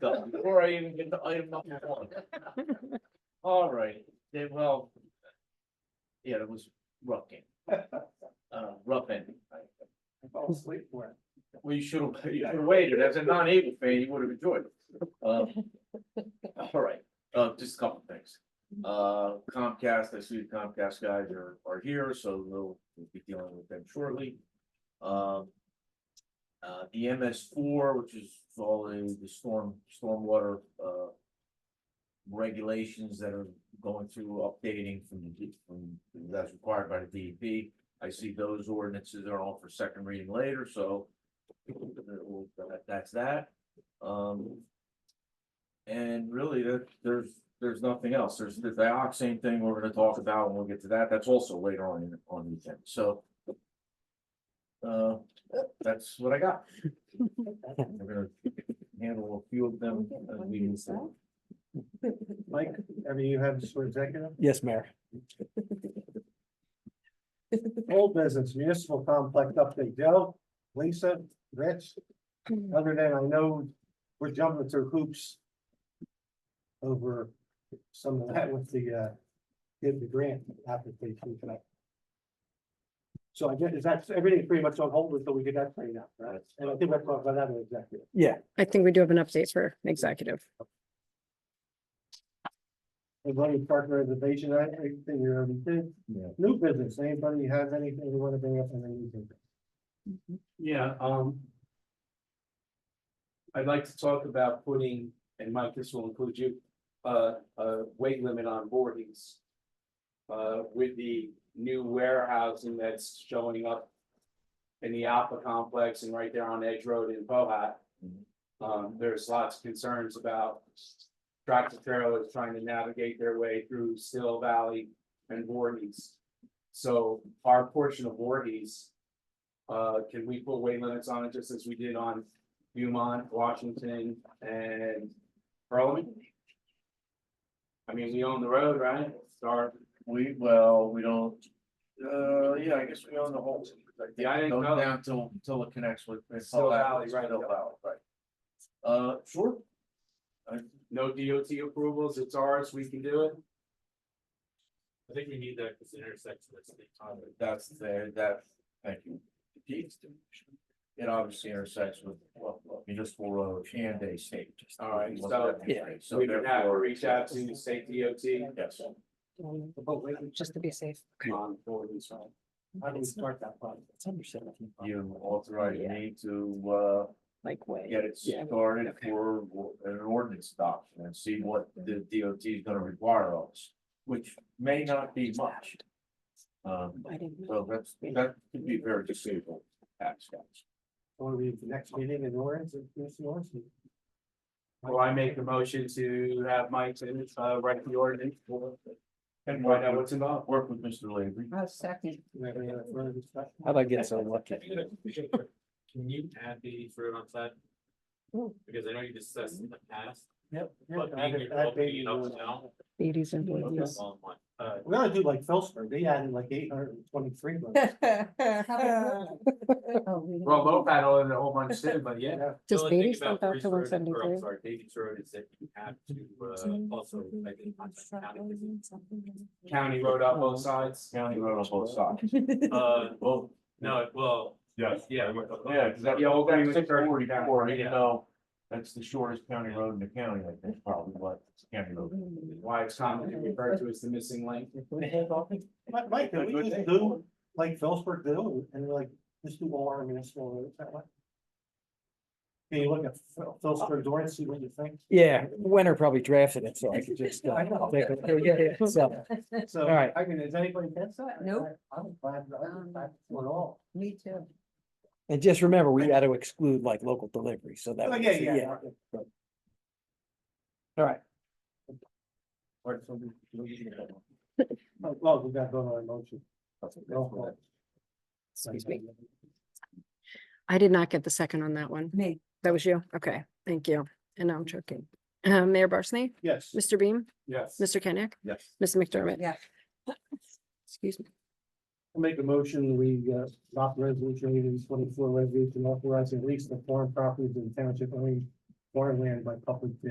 done before I even get to item number one. All right, then, well. Yeah, it was rough game. Uh, rough end. I fell asleep for it. Well, you should have, you should have waited. As a non-able fan, you would have enjoyed it. Uh, All right, uh, just a couple things. Uh, Comcast, I see the Comcast guys are, are here, so we'll we'll be dealing with them shortly. Um. Uh, the MS four, which is all the, the storm, stormwater, uh. Regulations that are going through updating from, the D- from, that's required by the DEP. I see those ordinances are all for second reading later, so. We'll- that- That's that. Um. And really, there, there's, there's nothing else. There's the dioxane thing we're gonna talk about, and we'll get to that. That's also later on, in- on the agenda, so. Uh, that's what I got. We're gonna handle a few of them. as we move forward. Mike, have you had this for executive? Yes, Mayor. Old business municipal complex update. Joe, Lisa, Rich, other than I know we're jumping through hoops over some of that with the, uh, did the grant application tonight. So I guess, is that, everything pretty much on hold until we get that cleaned up, right? And I think we're talking about that in executive. Yeah, I think we do have an update for executive. Anybody partner innovation, I think you already did. Yeah. New business, anybody have anything you wanna bring up in the new business? Yeah, um. I'd like to talk about putting, and Mike, this will include you, uh, a weight limit on boardings. Uh, with the new warehousing that's showing up. In the Alpha complex and right there on Edge Road in Pohat. Mhm. Um, there's lots of concerns about. Tractor trailers trying to navigate their way through Still Valley and Voorhees. So our portion of Voorhees. Uh, can we put weight limits on it just as we did on Beaumont, Washington and Pearlman? I mean, we own the road, right? It's our We, well, we don't, uh, yeah, I guess we own the whole. Yeah, I didn't Goes know. down till, till it connects with. with Still Pella- Valley, right, Still yeah. Valley, right. Uh, sure. no DOT approvals, it's ours, we can do it. I think we need that because the intersection is the time. Uh, That's there, that, thank you. It obviously intersects with well, well, municipal road and a state. All right, so- Yeah. So we can have to reach out to state DOT Yes. Just to be safe. on Gordon's Road. How do we start that project? You authorize Yeah. me to, uh, Like way. get it Yeah. started Okay. for an ordinance adoption and see what the DOT is gonna require of us, which may not be much. Um, I didn't know. so that's, that could be very deceitful, tax guys. Or we, the next meeting in Lawrence, in East Lawrence. Well, I make the motion to have Mike to, uh, write the ordinance for, And find out work what's involved. with- work with Mr. Lavery. Do we have any other further discussion? how'd I get so lucky? Can you add the road on set? Because I know you discussed in the past. Yep. But being Yeah, you're that opening baby it up was- now. Eighties and but it's nineties. all in one. Uh, We gotta do like Phillipsburg, they added like eight hundred and twenty-three. Oh, Well, low paddle and a whole bunch too, but yeah. the Does only thing eighties go about back Reese to Road- one or, I'm seventy-three? uh, Sorry, Davies Road is that you have Mm-hmm. to, uh, also. like, in contact county, because County road up both sides. County road on both sides. Uh, Well, no, well, yes. yeah. Yeah, cause that, Yeah, we'll bring six the third forty-four, down, you yeah. know, that's the shortest county road in the county, I think, probably, but it's a county road. Why it's commonly referred to as the missing link. Mike, Mike, can we just do like Phillipsburg do and we're like, just do all our municipal roads that way? Can you look at Phil- Phillipsburg, Lawrence, see what you think? Yeah, winter probably drafted it, so I could just. uh, I know. take Oh, a- yeah, yeah, so, So, All right. I mean, is anybody against that? Nope. Um, I'm glad, I'm glad for it all. Me too. And just remember, we got to exclude like local delivery, so that. Oh, would- yeah, yeah, yeah. All right. Or something. Well, we got to go on a motion. Roll call. Excuse me. I did not get the second on that one. Me. That was you? Okay, thank you. And now I'm joking. Uh, Mayor Barsney, Yes. Mr. Beam, Yes. Mr. Kenyek, Yes. Ms. McDermott. Yes. Excuse me. I'll Make a motion, we uh, adopt resolution eighteen twenty-four, resolution authorizing lease of foreign properties in township owned farmland by public